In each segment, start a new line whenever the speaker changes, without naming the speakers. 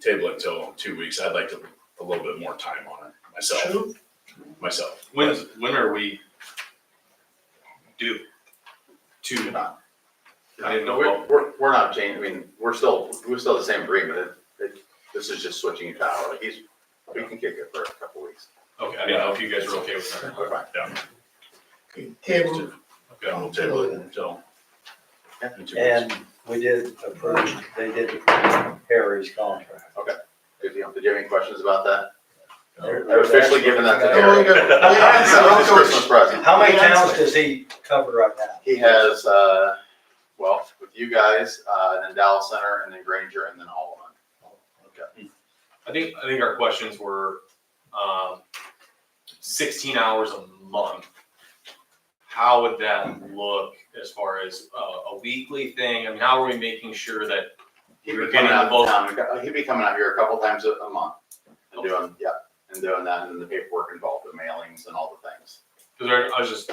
table it till two weeks. I'd like to, a little bit more time on it myself,
Sure.
myself.
When, when are we due?
We're
To,
not-
I didn't know.
We're, we're, we're not changing, I mean, we're still, we're still the same agreement, It- it- this is just switching it out, Like, he's, we can kick it for a couple weeks.
Okay, I didn't know if you guys were okay with that.
We're fine.
Okay, Table,
Okay, we'll table it until. in two weeks.
And we did approve, they did approve Harry's contract.
If you, did you have any questions about that?
Oh,
They're-
I've officially given that to
Oh,
Eric.
okay. Yeah,
It's
so I'll
his
go-
Christmas present.
How many towns does he cover right now?
He has, uh, well, with you guys, uh, and then Dallas Center, and then Granger, and then Allen.
I think, I think our questions were, um, sixteen hours a month. How would that look as far as a, a weekly thing? I mean, how are we making sure that
He'd
We're
be
getting
coming out
both.
of town, uh, he'd be coming out here a couple times a, a month, and doing, yeah, and doing that, and the paperwork involved, the mailings and all the things.
Because I, I was just,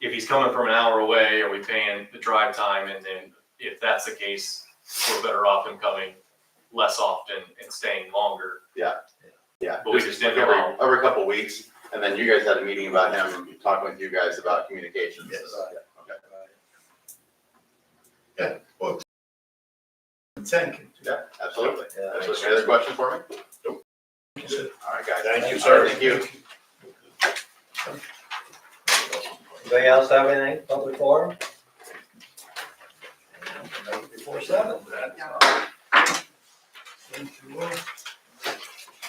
if he's coming from an hour away, are we paying the drive time? And then if that's the case, we're better off him coming less often and staying longer.
Yeah.
But we just didn't
every,
allow-
every couple of weeks, and then you guys had a meeting about him, talking with you guys about communications.
Yes.
Okay.
thank you.
Yeah, absolutely.
Yeah.
Absolutely. Any other question for me?
Nope.
All right, guys.
Thank you,
All
sir.
right, Thank you.
Anybody else have anything, public forum? Before seven.
Thank you.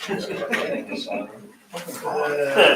Thank you, Simon.
Uh,